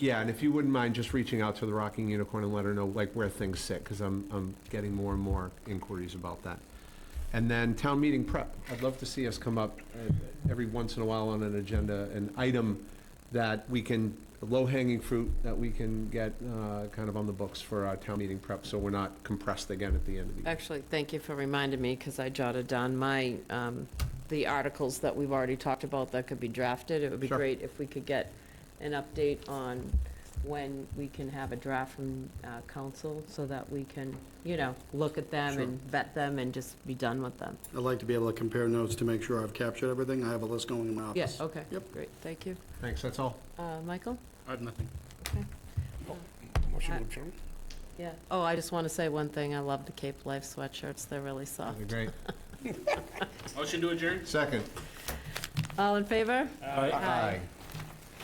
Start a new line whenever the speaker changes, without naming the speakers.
Yeah, and if you wouldn't mind just reaching out to the Rocking Unicorn and let her know like where things sit, because I'm, I'm getting more and more inquiries about that. And then town meeting prep. I'd love to see us come up uh, every once in a while on an agenda, an item that we can, low-hanging fruit that we can get uh, kind of on the books for our town meeting prep, so we're not compressed again at the end of the year.
Actually, thank you for reminding me, because I jotted down my, um, the articles that we've already talked about that could be drafted. It would be
Sure.
great if we could get an update on when we can have a draft from uh, council, so that we can, you know, look at them
Sure.
and vet them and just be done with them.
I'd like to be able to compare notes to make sure I've captured everything. I have a list going in my office.
Yes, okay,
Yep.
great, thank you.
Thanks, that's all.
Uh, Michael?
I have nothing.
Motion Yeah, oh, I just want to say one thing, I love the Cape Life sweatshirts, they're really soft.
That'd be Great.
Motion to adjourn?
Second.
All in favor?
Aye.